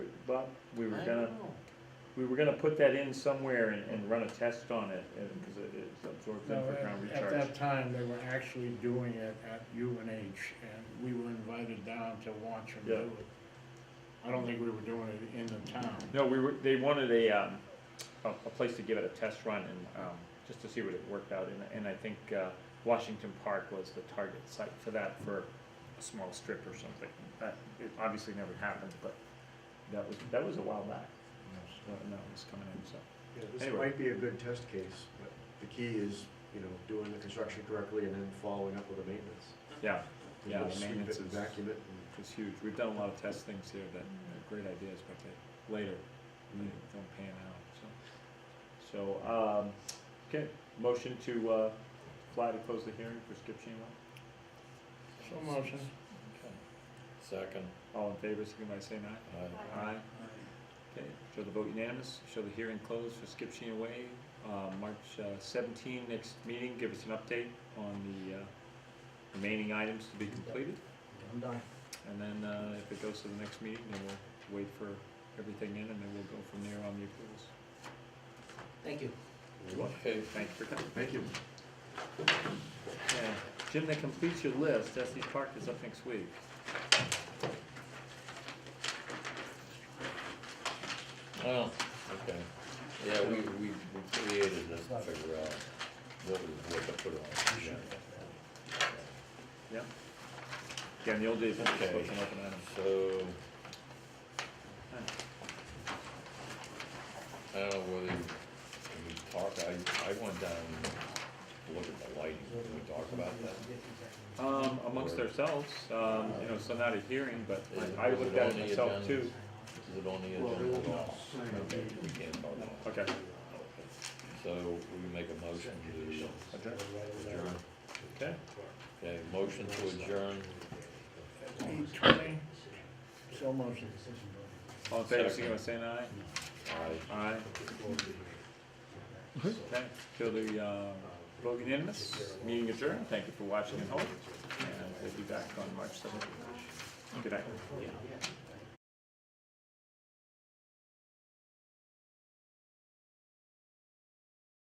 Bob? We were I gonna, don't know. we were gonna put that in somewhere and, and run a test on it, and, cause it, it's absorbed in No, for at- ground At recharge. that time, they were actually doing it at UNH, and we were invited down to watch them do Yeah. it. I don't think we were doing it in the town. No, we were, they wanted a, um, a, a place to give it a test run and, um, just to see what it worked out, and, and I think, uh, Washington Park was the target site for that, for a small strip or something. That, it obviously never happened, but that was, that was a while back, when that was coming in, so. Yeah, this Anyway. might be a good test case, but the key is, you know, doing the construction correctly and then following up with the maintenance. Yeah, You yeah, know, the sweep it maintenance and is, Vacuum it and is huge. We've done a lot of test things here that are great ideas, but they, later, Mm. they don't pan out, so. So, um, okay, motion to, uh, fly to close the hearing for Skip Shamrock? So motion. Second, All in favor, signify by saying aye. aye. Aye. Okay, show the vote unanimous, show the hearing closed for Skip Sheen Way, uh, March seventeen, next meeting, give us an update on the, uh, remaining items to be completed. I'm done. And then, uh, if it goes to the next meeting, then we'll wait for everything in and then we'll go from there on the approvals. Thank you. Mm. Okay, Thank you for coming. Thank you. Yeah. Jim, that completes your list, Estes Park is up next week. oh, okay. Yeah, we, we we created this to figure out what we, what to put on. yeah. Yeah? Yeah, in the old days, that was Okay. an open item. So. I don't know whether we talk, I, I went down and looked at the lighting, can we talk about that? Oh, Um, amongst ourselves, um, you know, so not a hearing, but I I looked at it myself too. Is it on the Well, there will agenda? be No. sign up. Okay, we can't talk about it. Okay. Okay. So we make a motion to Adjourn. adjourn, Okay, okay, motion to adjourn, Eight twenty, so motion. all in favor, signify by saying aye. aye. Aye. Okay, so the, uh, vote unanimous, meeting adjourned, thank you for watching and holding, and we'll be back on March seventeenth. Good night.